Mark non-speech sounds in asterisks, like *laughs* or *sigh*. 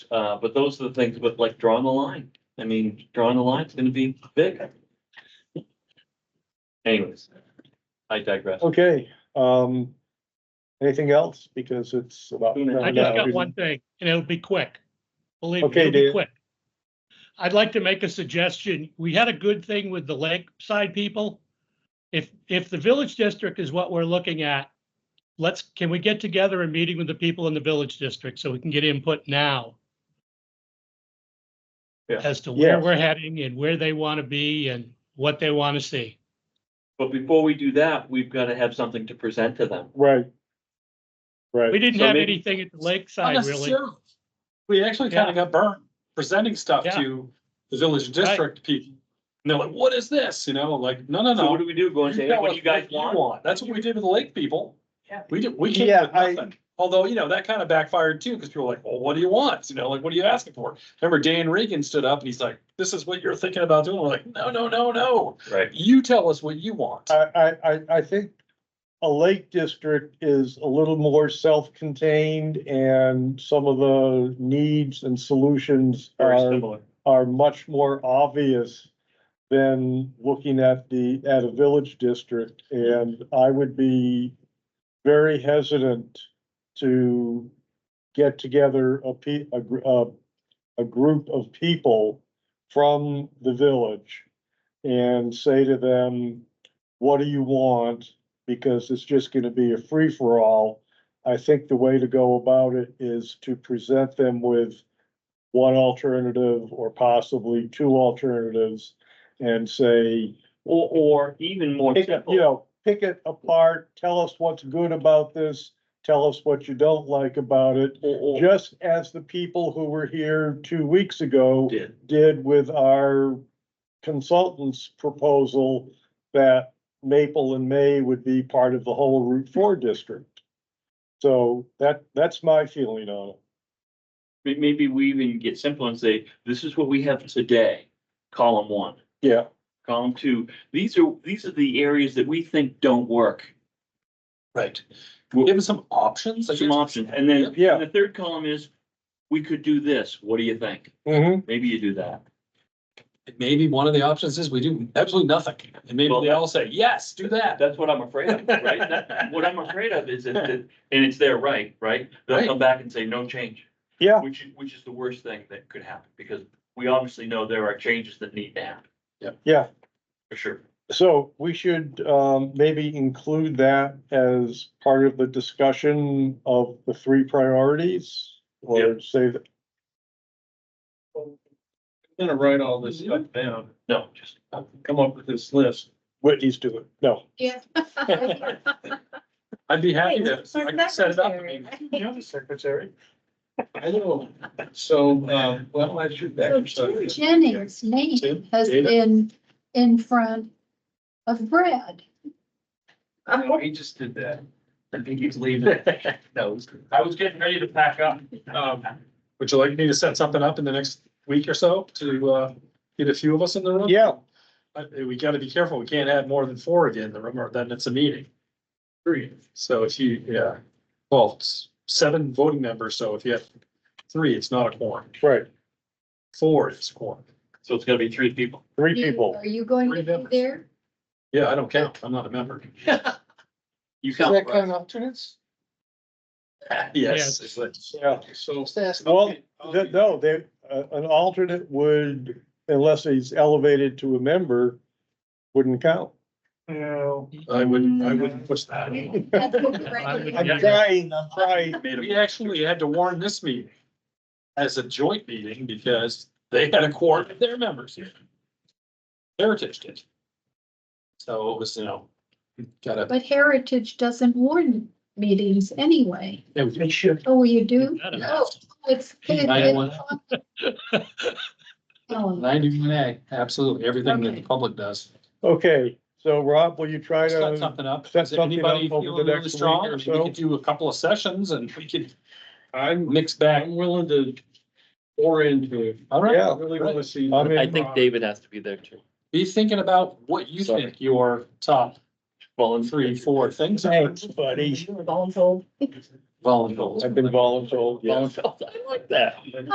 Uh, but those are the things, but like drawing the line, I mean, drawing the line's gonna be big. Anyways, I digress. Okay, um, anything else? Because it's about. I just I just got one thing, and it'll be quick. Believe me, Okay, it'll be Dave. quick. I'd like to make a suggestion. We had a good thing with the lakeside people. If, if the village district is what we're looking at, let's, can we get together a meeting with the people in the village district so we can get input now? Yeah. As to where Yes. we're heading and where they want to be and what they want to see. But before we do that, we've gotta have something to present to them. Right. We Right, didn't So have maybe- anything at the Not lakeside, really. necessarily. We actually kind of got burnt presenting stuff Yeah. to the village district people. And they're like, what is this? You know, like, no, no, So what do no. we do? Go and You say, tell what us you guys want? That's what we did with the lake people. Yeah. We did, we Yeah, came with I- nothing. Although, you know, that kind of backfired too, because people were like, well, what do you want? You know, like, what are you asking for? Remember Dan Regan stood up and he's like, this is what you're thinking about doing. We're like, no, no, no, no. Right. You tell us what you want. I, I, I, I think a lake district is a little more self-contained and some of the needs and solutions Very Um, are, similar. are much more obvious than looking at the, at a village district, and I would be very hesitant to get together a pe- a, gr- a, a group of people from the village and say to them, what do you want? Because it's just gonna be a free-for-all. I think the way to go about it is to present them with one alternative or possibly two alternatives and say, Or, or even more pick it, you simple, know, pick it apart, tell us what's good about this, tell us what you don't like about it. or, or Just as the people who were here two weeks ago did. did with our consultant's proposal that Maple and May would be part of the whole Route Four district. So that, that's my feeling on it. May- Maybe we even get simple and say, this is what we have today, column one. Yeah. Column two, these are, these are the areas that we think don't work. Right. Well- Give us some options. I Some guess. options. And then, Yeah. and the third column is, we could do this. What do you think? Mm-hmm. Maybe you do that. And Maybe one of the options is we do absolutely nothing. And maybe Well, they all say, yes, do that. That's what I'm afraid of, *laughs* right? That- What I'm afraid of is that, that- and it's their right, right? They'll Right. come back and say, no change. Yeah. Which, is- which is the worst thing that could happen, because we obviously know there are changes that need to happen. Yeah, For sure. so we should um maybe include that as part of the discussion of the three priorities or say that. gonna write all this stuff Mm-hmm. down, No, just, come up with this list. Whitney's doing it. No, Yeah. I'd be happy to, Hey, I can set it up. I mean, secretary. You're the secretary. I know. So, um, well, I should back. So and stuff. Jim Jennings' name has Dana. been in front of Brad. No, He just did that. I think he's leaving. *laughs* No. I was getting ready to pack up. Um, would you like me to set something up in the next week or so to, uh, get a few of us in the room? yeah, But we gotta be careful. We can't have more than four again in the room or then it's a meeting. Three. So if you, yeah, well, it's seven voting members. So if you have three, it's not a quorum. right, Four is a quorum. so it's gonna be three people. three You- people. Are you going to Three be members. there? Yeah, I don't count. I'm not a member. *laughs* You Is count. right? of alternates? Yes. Yes. Yeah. So. Well, Th- No, they, uh, an alternate would, unless he's elevated to a member, wouldn't count. I wouldn't, I wouldn't push that. That's what *laughs* we recommend. I'm Yeah. crying, I'm crying. We actually had to warn this meeting as a joint meeting because they had a quorum of their members here. Heritage did. So it was, you know, gotta, But Heritage doesn't warn meetings anyway. it was- Make sure. Oh, you do? I don't know. Oh, it's. Might wanna- *laughs* Oh, ninety-one A, absolutely, everything that the Okay. public does. Okay, so Rob, will you try Set to, something up. set Is something anybody up over the feeling really next week strong? or I mean, so? We could do a couple of sessions and we could I'm, mix back. I'm willing to pour into it. All right. yeah, I really wanna see. I mean- I think David has to be there too. Be thinking about what you Sorry. think your top three, four things are. thanks, buddy. Voluntold. Volunteers. I've been voluntold, yes. Voluntold, I like that.